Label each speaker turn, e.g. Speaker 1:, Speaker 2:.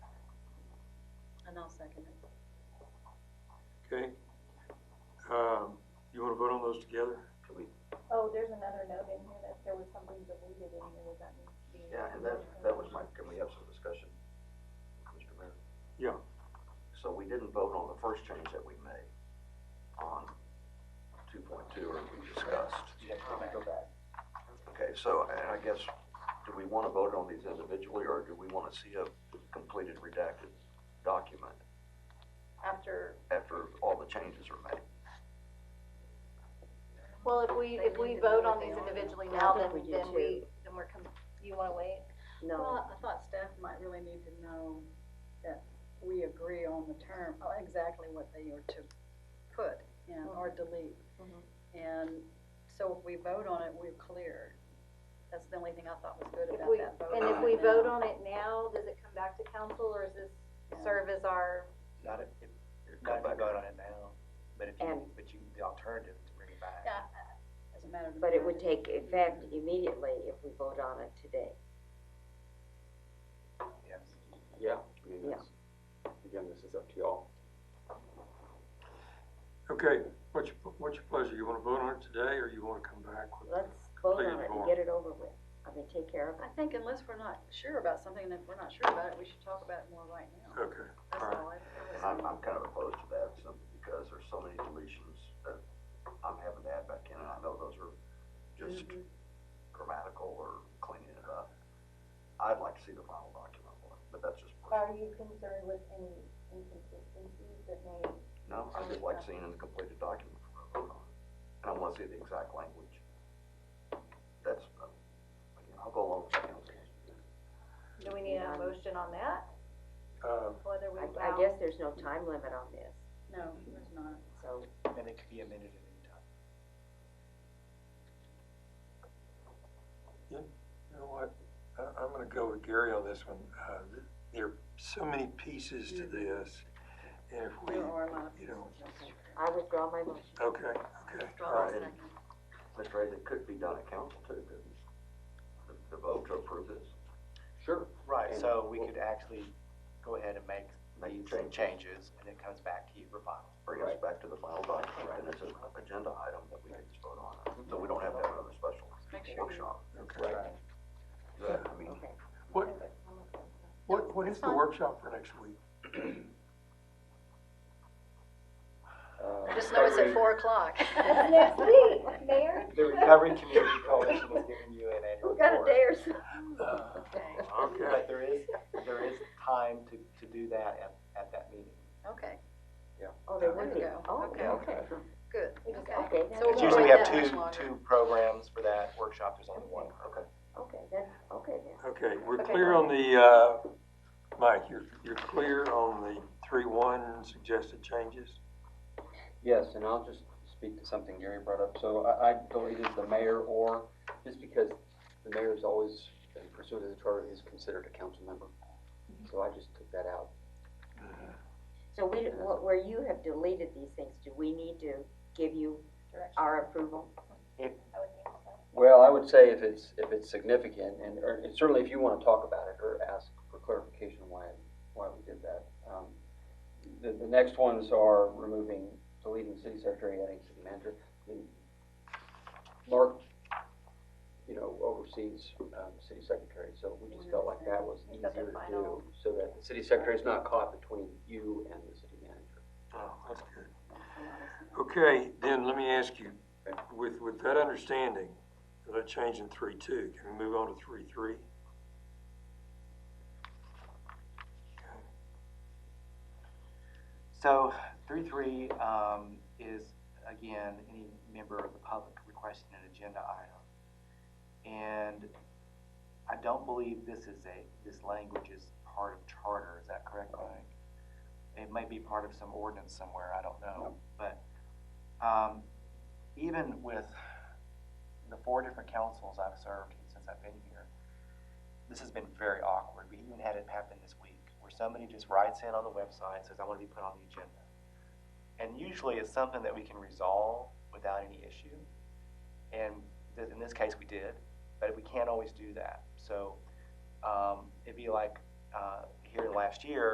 Speaker 1: I'll second it.
Speaker 2: Okay? Um, you wanna vote on those together?
Speaker 3: Oh, there's another note in here that there was something deleted in here, was that needs to be?
Speaker 4: Yeah, and that, that was my, can we have some discussion, Mr. Mayor?
Speaker 2: Yeah.
Speaker 4: So we didn't vote on the first change that we made on two point two, or we discussed. Okay, so, and I guess, do we wanna vote on these individually, or do we wanna see a completed redacted document
Speaker 3: After,
Speaker 4: after all the changes are made?
Speaker 5: Well, if we, if we vote on these individually now, then, then we, then we're, com- you wanna wait?
Speaker 1: Well, I thought staff might really need to know that we agree on the term, oh, exactly what they are to put in
Speaker 5: Mm-hmm.
Speaker 1: or delete.
Speaker 5: Mhm.
Speaker 1: And so if we vote on it, we're clear. That's the only thing I thought was good
Speaker 5: If
Speaker 1: about
Speaker 5: we,
Speaker 1: that vote.
Speaker 5: and
Speaker 6: Uh,
Speaker 5: if
Speaker 1: right
Speaker 5: we
Speaker 1: now.
Speaker 5: vote on it now, does it come back to council, or is
Speaker 1: Yeah.
Speaker 5: this serve as our,
Speaker 7: Not if, if,
Speaker 4: Come
Speaker 7: not if
Speaker 4: back.
Speaker 7: you vote on it now, but if you,
Speaker 6: And-
Speaker 7: but you, the alternative is to bring it back.
Speaker 1: Yeah, doesn't matter to me.
Speaker 6: But it would take effect immediately if we vote on it today.
Speaker 7: Yes.
Speaker 8: Yeah, I mean, that's, again, this is up to y'all.
Speaker 2: Okay, what's your, what's your pleasure? You wanna vote on it today, or you wanna come back with?
Speaker 6: Let's vote on
Speaker 2: Completed
Speaker 6: it
Speaker 2: form.
Speaker 6: and get it over with. I mean, take care of
Speaker 1: I
Speaker 6: it.
Speaker 1: think unless we're not sure about something, and if we're not sure about it, we should talk about it more right now.
Speaker 2: Okay,
Speaker 1: That's
Speaker 2: all
Speaker 1: all I,
Speaker 2: right.
Speaker 1: it was-
Speaker 4: I'm, I'm kind of opposed to that, simply because there's so many deletions that I'm having to add back in, and I know those are just
Speaker 1: Mm-hmm.
Speaker 4: grammatical or cleaning it up. I'd like to see the final document, but that's just personal.
Speaker 3: are you concerned with any inconsistencies that may?
Speaker 4: No, I just like seeing a completed document before I vote on it. And I want to see the exact language. That's, uh, again, I'll go along with the council.
Speaker 5: do we need a motion on that,
Speaker 2: Uh,
Speaker 5: whether we
Speaker 6: I, I
Speaker 5: allow-
Speaker 6: guess there's no time limit on this,
Speaker 1: no, there's not.
Speaker 6: so
Speaker 7: And it could be amended at any time.
Speaker 2: You know what, I, I'm gonna go with Gary on this one, uh, th- there are so many pieces to this, and if we,
Speaker 1: There are a lot of
Speaker 2: you know,
Speaker 6: I withdraw my motion.
Speaker 2: okay, okay, all
Speaker 4: my
Speaker 2: right.
Speaker 4: second. Mr. Hayes, it could be done at council too, couldn't it? The, the vote to approve this.
Speaker 8: Sure.
Speaker 7: Right,
Speaker 8: And
Speaker 7: so we
Speaker 8: we'll-
Speaker 7: could actually go ahead and make
Speaker 4: Make
Speaker 7: these
Speaker 4: changes.
Speaker 7: changes, and it comes back to you for final.
Speaker 4: bring us back to the final document, and it's an agenda item that we can just vote on, so we don't have to have another special
Speaker 1: Make sure we-
Speaker 4: workshop.
Speaker 2: Okay.
Speaker 4: But, I mean,
Speaker 6: Okay.
Speaker 2: What, what, what is the workshop for next week?
Speaker 8: Uh,
Speaker 1: Just know it's at
Speaker 8: recovery-
Speaker 1: four o'clock.
Speaker 3: Next week, Mayor?
Speaker 7: The Recovery Community Coalition is giving you an annual report.
Speaker 6: We've got a day or so.
Speaker 2: Uh, Okay,
Speaker 7: But there is, there is time to, to do that at, at that meeting.
Speaker 1: Okay,
Speaker 6: Oh, there
Speaker 1: There
Speaker 6: would
Speaker 1: you
Speaker 6: be.
Speaker 1: go.
Speaker 6: Oh,
Speaker 1: Okay.
Speaker 6: okay.
Speaker 1: good.
Speaker 6: We just-
Speaker 1: Okay.
Speaker 6: Okay,
Speaker 1: So
Speaker 6: that's,
Speaker 7: It's
Speaker 1: we'll
Speaker 7: usually we
Speaker 1: wait
Speaker 7: have
Speaker 1: that much
Speaker 7: two,
Speaker 1: longer.
Speaker 7: two programs for that workshop, there's only one.
Speaker 4: okay,
Speaker 6: okay, that's, okay then.
Speaker 2: okay, we're clear on the, uh, Mike, you're, you're clear on the three-one suggested changes?
Speaker 8: Yes, and I'll just speak to something Gary brought up. So I, I deleted the mayor or, just because the mayor is always, in pursuit of the charter, is considered a council member. So I just took that out.
Speaker 6: So we, wh- where you have deleted these things, do we need to give you
Speaker 3: Direction,
Speaker 6: our approval?
Speaker 3: I would think so.
Speaker 8: Well, I would say if it's, if it's significant, and, or and certainly if you wanna talk about it or ask for clarification why, why we did that. Um, The, the next ones are removing, deleting city secretary, adding city manager. I mean, Mark, you know, oversees, um, city secretary, so we just felt like that was
Speaker 5: Is
Speaker 8: easier
Speaker 5: that the
Speaker 8: to do,
Speaker 5: final?
Speaker 8: so that the city secretary's not caught between you and the city manager.
Speaker 2: Oh, that's good. Okay, then let me ask you, with, with that understanding, of that change in three-two, can we move on to three-three?
Speaker 7: So three three um, is again any member of the public requesting an agenda item, and I don't believe this is a this language is part of charter. Is that correct, Mike? It may be part of some ordinance somewhere. I don't know, but um, even with the four different councils I've served since I've been here, this has been very awkward. We even had it happen this week where somebody just writes in on the website and says, I want to be put on the agenda. And usually it's something that we can resolve without any issue. And th- in this case, we did, but we can't always do that. So um, it'd be like uh, here last year,